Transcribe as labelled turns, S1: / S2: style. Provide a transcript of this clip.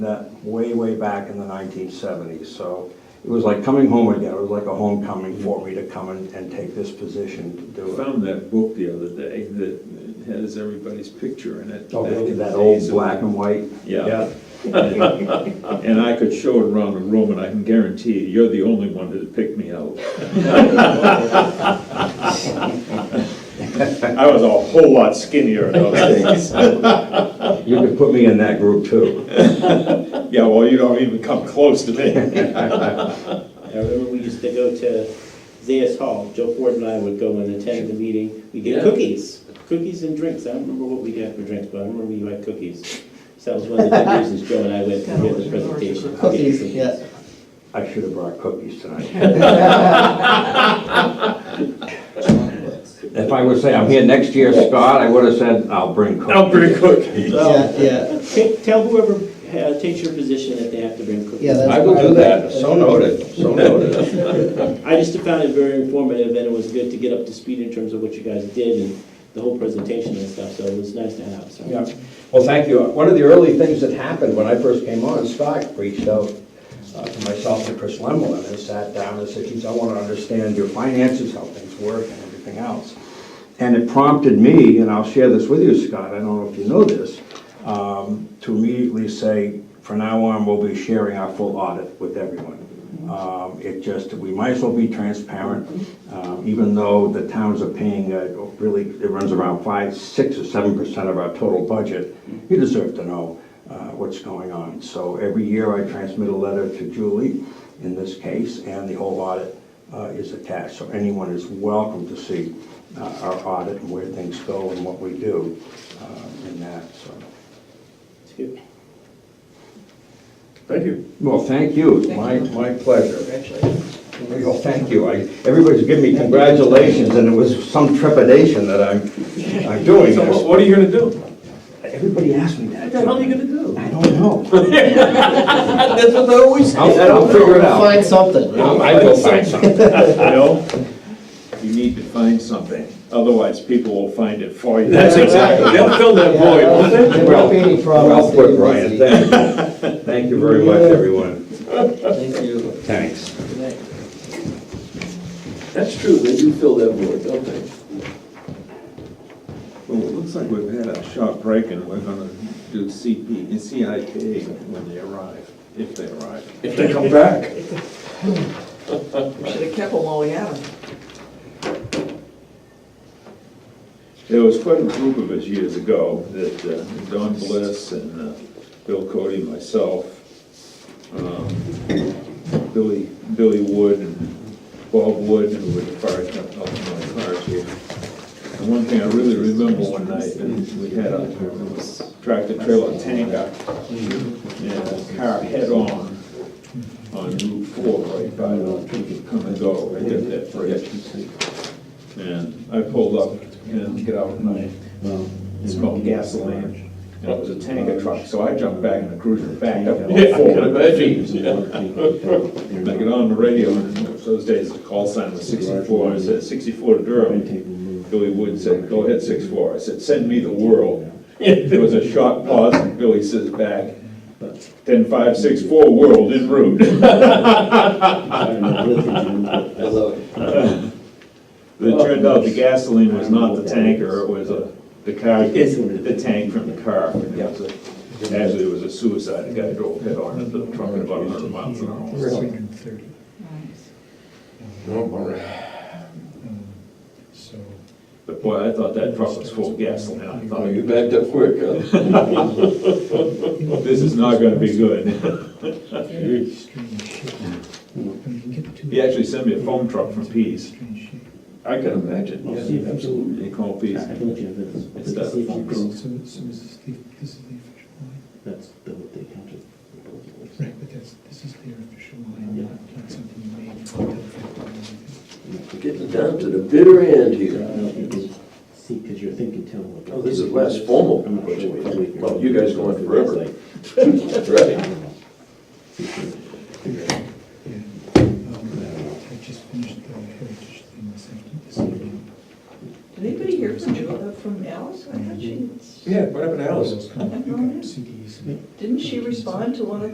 S1: that way, way back in the 1970s. So it was like coming home again. It was like a homecoming for me to come and, and take this position to
S2: I
S1: do it.
S2: found that book the other day that has everybody's picture in it.
S1: Oh,
S2: back in
S1: That
S2: the
S1: old
S2: days of-
S1: black and white.
S2: Yeah, Uh, and I could show it around the room, and I can guarantee you, you're the only one that picked me out. I was a whole lot skinnier in those days.
S1: You could put me in that group too.
S2: Yeah, well, you don't even come close to me.
S3: I remember we used to go to Zayas Hall, Joe Ford and I would go and attend the meeting, we
S2: Yeah.
S3: get cookies, cookies and drinks, I don't remember what we got for drinks, but I remember you had cookies. So that was one of the big reasons Joe and I went to hear the presentation.
S4: Cookies, yeah.
S1: I should have brought cookies tonight. If I would say I'm here next year, Scott, I would have said, I'll bring cookies.
S2: I'll bring cookies.
S4: Yeah, yeah,
S3: Ta- Tell whoever uh, takes your position that they have to bring cookies.
S4: yeah. that's
S1: I will
S4: what
S1: do that.
S4: like.
S1: So noted, so noted.
S3: I just found it very informative, and it was good to get up to speed in terms of what you guys did and the whole presentation and stuff, so it was nice to have, so.
S1: Yeah. Well, thank you. One of the early things that happened when I first came on, Scott reached out uh, to myself and Chris Lemelin and sat down and said, geez, I want to understand your finances, how things work and everything else. And it prompted me, and I'll share this with you, Scott, I don't know if you know this, um, to immediately say, from now on, we'll be sharing our full audit with everyone. Um, It just, we might as well be transparent, um, even though the towns are paying, uh, really, it runs around five, six, or seven percent of our total budget. You deserve to know uh, what's going on. So every year I transmit a letter to Julie, in this case, and the whole audit uh, is attached. So anyone is welcome to see uh, our audit and where things go and what we do uh, in that, so.
S3: It's good.
S2: Thank you.
S1: Well, thank you, It's my, my pleasure. Well, thank you, I, everybody's giving me congratulations, and it was some trepidation that I'm, I'm doing
S2: So what-
S1: this.
S2: what are you gonna do?
S1: Everybody asked me that.
S2: What the hell are you gonna do?
S1: I don't know.
S2: That's what they always
S1: I'll, I'll figure it out.
S4: Find something.
S1: I'll- I will find something.
S2: No, you need to find something, otherwise people will find it for you.
S1: That's exactly-
S2: They'll fill that void, won't they?
S4: There won't be any problems.
S1: Well put,
S4: Brian.
S1: Brian, thank you. Thank you very much, everyone.
S4: Thank you.
S1: Thanks.
S2: That's true, they do fill that void, don't they? Well, it looks like we've had a short break and we're gonna do CP, and CIP when they arrive, if they arrive. If they come back.
S5: We should have kept them while we had them.
S2: There was quite a group of us years ago that uh, Don Bliss and uh, Bill Cody, myself, um, Billy, Billy Wood and Bob Wood, who were the fire captain of my fire chief. And one thing I really remember one night, and we had a tractor trailer tanker and a car head-on on Route Four, right by the come and go, right there, that bridge. And I pulled up and get out and I smelled gasoline. And it was a tanker truck, so I jumped back in the cruiser, backed up and forward. And I get on the radio, and those days the call sign was sixty-four, I said sixty-four to Durham. Billy Wood said, go ahead, six-four. I said, send me the world. There was a short pause and Billy says back, ten-five-six-four, world en route.
S4: I love it.
S2: It turned out the gasoline was not the tanker, it was a, the car, the tank from the car. And it was a- Actually, it was a suicide, a guy drove head on into the truck at about hundred miles an hour.
S6: um, So,
S2: But boy, I thought that truck was full of gasoline, I thought,
S7: You backed up quick, huh?
S2: this is not gonna be good.
S6: strange shape. When you get to
S2: He actually sent me a foam truck from Pease,
S6: strange shape.
S7: I can imagine, yes, absolutely.
S2: they call Pease.
S3: I don't have this.
S2: It's that phone call.
S6: So, so is this the, this is the official line?
S3: That's the, they counted.
S6: Right, but that's, this is their official line, not not something you made. for the effect or anything.
S7: We're Getting down to the bitter end here.
S3: See, because you're thinking town.
S7: Oh, this is less formal.
S3: I'm not sure what the week-
S7: Well, you guys go on forever.
S3: I
S7: Right.
S3: don't know. See, figure it out.
S6: Yeah. Um, I just finished the heritage thing this afternoon, this evening.
S5: Did anybody hear from Julie, from Alice? I thought she,
S7: Yeah, what happened to Alice?
S6: Those kind of- you got CDs.
S5: didn't she respond to one of